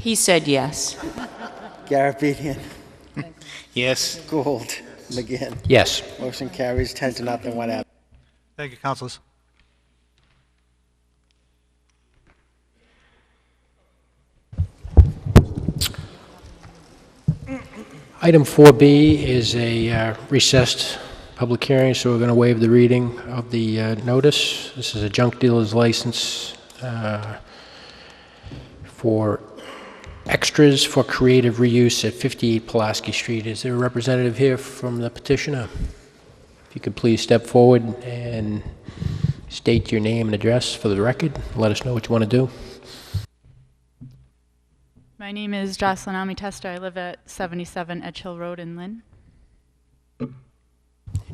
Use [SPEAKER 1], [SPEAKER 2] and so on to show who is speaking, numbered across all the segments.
[SPEAKER 1] He said yes.
[SPEAKER 2] Garabedian,
[SPEAKER 3] Yes.
[SPEAKER 2] Gould, McGinn.
[SPEAKER 4] Yes.
[SPEAKER 2] Motion carries 10 to nothing, one absent.
[SPEAKER 5] Thank you, councilors.
[SPEAKER 4] Item 4B is a uh, recessed public hearing, so we're going to waive the reading of the uh, notice. This is a junk dealer's license uh, for extras for creative reuse at 58 Pulaski Street. Is there a representative here from the petitioner? If you could please step forward and state your name and address for the record, let us know what you want to do.
[SPEAKER 6] My name is Jocelyn Almi Testa. I live at 77 Edge Hill Road in Lynn.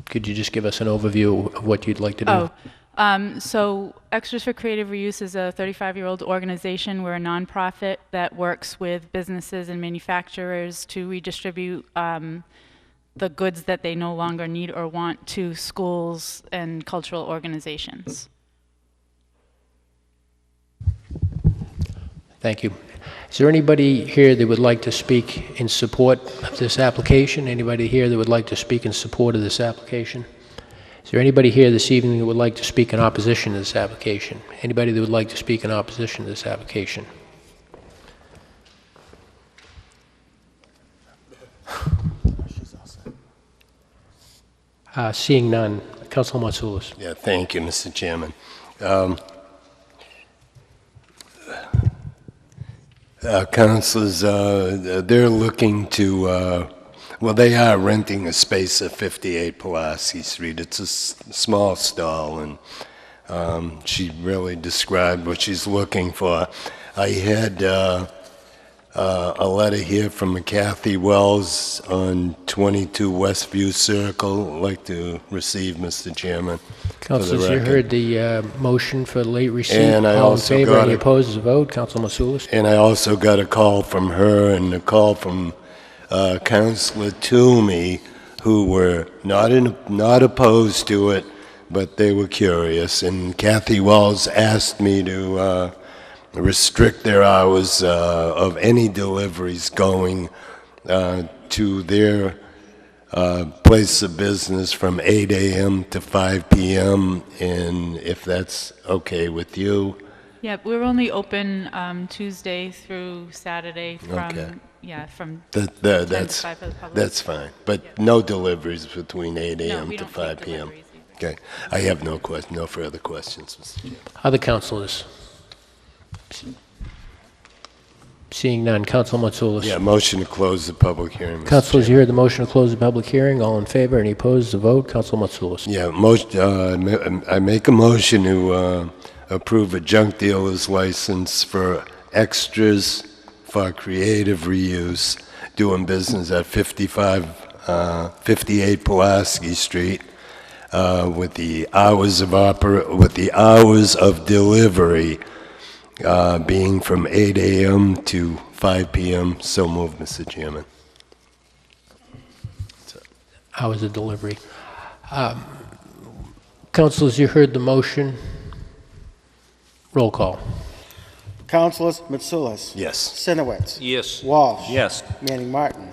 [SPEAKER 4] Could you just give us an overview of what you'd like to do?
[SPEAKER 6] Oh, um, so Extras for Creative Reuse is a 35 year old organization. We're a nonprofit that works with businesses and manufacturers to redistribute um, the goods that they no longer need or want to schools and cultural organizations.
[SPEAKER 4] Thank you. Is there anybody here that would like to speak in support of this application? Anybody here that would like to speak in support of this application? Is there anybody here this evening that would like to speak in opposition to this application? Anybody that would like to speak in opposition to this application? Uh, Seeing none, Councilor Matsoulis.
[SPEAKER 7] Yeah, thank you, Mr. Chairman. Um, uh, Councilors, uh, they're looking to, uh, well, they are renting a space at 58 Pulaski Street. It's a s- small stall, and um, she really described what she's looking for. I had uh, uh, a letter here from Kathy Wells on 22 Westview Circle. I'd like to receive, Mr. Chairman. for the
[SPEAKER 4] Councilors, you
[SPEAKER 7] record.
[SPEAKER 4] heard the uh, motion for late receipt.
[SPEAKER 7] And I
[SPEAKER 4] All in
[SPEAKER 7] also
[SPEAKER 4] favor,
[SPEAKER 7] got
[SPEAKER 4] any
[SPEAKER 7] it.
[SPEAKER 4] opposed, is a vote. Councilor Matsoulis.
[SPEAKER 7] And I also got a call from her and a call from uh, Counselor Toomey, who were not in, not opposed to it, but they were curious. And Kathy Wells asked me to uh, restrict their hours uh, of any deliveries going uh, to their uh, place of business from 8 a.m. to 5 p.m. And if that's okay with you,
[SPEAKER 6] Yep, we're only open um, Tuesday through Saturday from,
[SPEAKER 7] Okay.
[SPEAKER 6] yeah, from
[SPEAKER 7] That,
[SPEAKER 6] 10
[SPEAKER 7] that,
[SPEAKER 6] to
[SPEAKER 7] that's,
[SPEAKER 6] 5 for the public.
[SPEAKER 7] that's fine, but no deliveries between eight AM
[SPEAKER 6] we
[SPEAKER 7] to
[SPEAKER 6] don't take
[SPEAKER 7] five PM.
[SPEAKER 6] deliveries either.
[SPEAKER 7] Okay, I have no question, no further questions, Mr. Chairman.
[SPEAKER 4] Other councilors? Seeing none, Council Matsoulis.
[SPEAKER 7] Yeah, motion to close the public hearing, Mr.
[SPEAKER 4] Councilors, you heard the motion to close the public hearing. All in favor, any opposed, the vote. Council Matsoulis.
[SPEAKER 7] Yeah, most, uh, I ma- I make a motion to, uh, approve a junk dealer's license for extras for creative reuse, doing business at fifty-five, uh, fifty-eight Pulaski Street, uh, with the hours of oper, with the hours of delivery, uh, being from eight AM to five PM. So moved, Mr. Chairman.
[SPEAKER 4] Hours of delivery. Um, Councilors, you heard the motion. Roll call.
[SPEAKER 2] Councilors Mitsoulas.
[SPEAKER 7] Yes.
[SPEAKER 2] Sinowitz.
[SPEAKER 3] Yes.
[SPEAKER 2] Walsh.
[SPEAKER 3] Yes.
[SPEAKER 2] Manning Martin.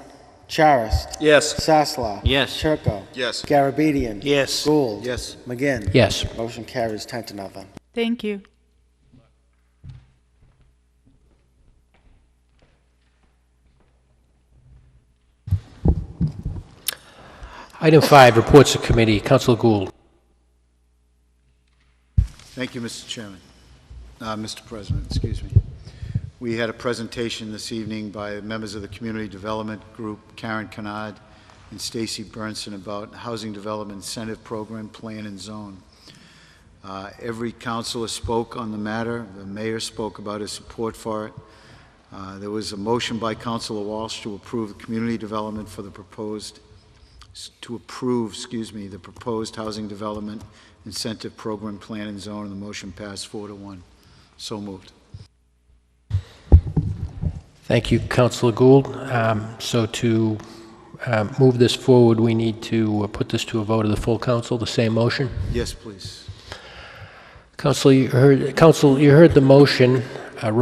[SPEAKER 2] Charis.
[SPEAKER 3] Yes.
[SPEAKER 2] Sasla.
[SPEAKER 3] Yes.
[SPEAKER 2] Turco.
[SPEAKER 3] Yes.
[SPEAKER 2] Garabedian.
[SPEAKER 3] Yes.
[SPEAKER 2] Gould.
[SPEAKER 3] Yes.
[SPEAKER 2] McGinn.
[SPEAKER 4] Yes.
[SPEAKER 2] Motion carries 10 to nothing.
[SPEAKER 6] Thank you.
[SPEAKER 4] Item five, reports of committee. Council Gould.
[SPEAKER 8] Thank you, Mr. Chairman, Uh, Mr. President, excuse me. We had a presentation this evening by members of the Community Development Group, Karen Kennard and Stacy Burnson, about Housing Development Incentive Program Plan and Zone. Uh, Every counselor spoke on the matter, the mayor spoke about his support for it. Uh, There was a motion by Counselor Walsh to approve the community development for the proposed, to approve, excuse me, the proposed housing development incentive program plan and zone, and the motion passed four to one. So moved.
[SPEAKER 4] Thank you, Councilor Gould. Um, So to uh, move this forward, we need to uh, put this to a vote of the full council, the same motion.
[SPEAKER 8] Yes, please.
[SPEAKER 4] Council, you heard, Council, you heard the motion. uh,